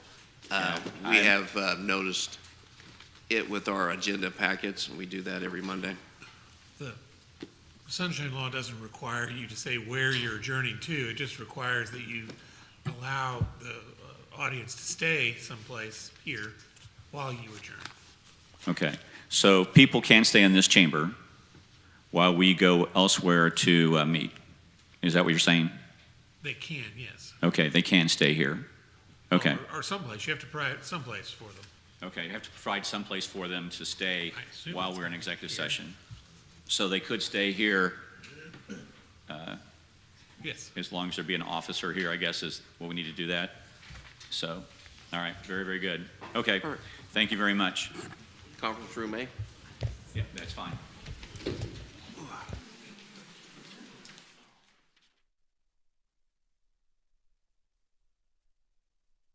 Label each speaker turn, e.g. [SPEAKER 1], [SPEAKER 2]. [SPEAKER 1] Uh, We have uh, noticed it with our agenda packets, and we do that every Monday.
[SPEAKER 2] Sunshine Law doesn't require you to say where you're adjourning to, it just requires that you allow the uh, audience to stay someplace here while you adjourn.
[SPEAKER 3] Okay, so people can stay in this chamber while we go elsewhere to uh, meet. Is that what you're saying?
[SPEAKER 2] They can, yes.
[SPEAKER 3] Okay, they can stay here. Okay,
[SPEAKER 2] Or- Or someplace, you have to provide someplace for them.
[SPEAKER 3] okay, you have to provide someplace for them to stay
[SPEAKER 2] I assume
[SPEAKER 3] while
[SPEAKER 2] it's
[SPEAKER 3] we're in executive
[SPEAKER 2] here.
[SPEAKER 3] session. So they could stay here
[SPEAKER 2] Yes,
[SPEAKER 3] as long as there be an officer here, I guess, is what we need to do that. So, all right, very, very good. Okay,
[SPEAKER 1] All right.
[SPEAKER 3] thank you very much.
[SPEAKER 1] Conference room A?
[SPEAKER 3] Yeah, that's fine.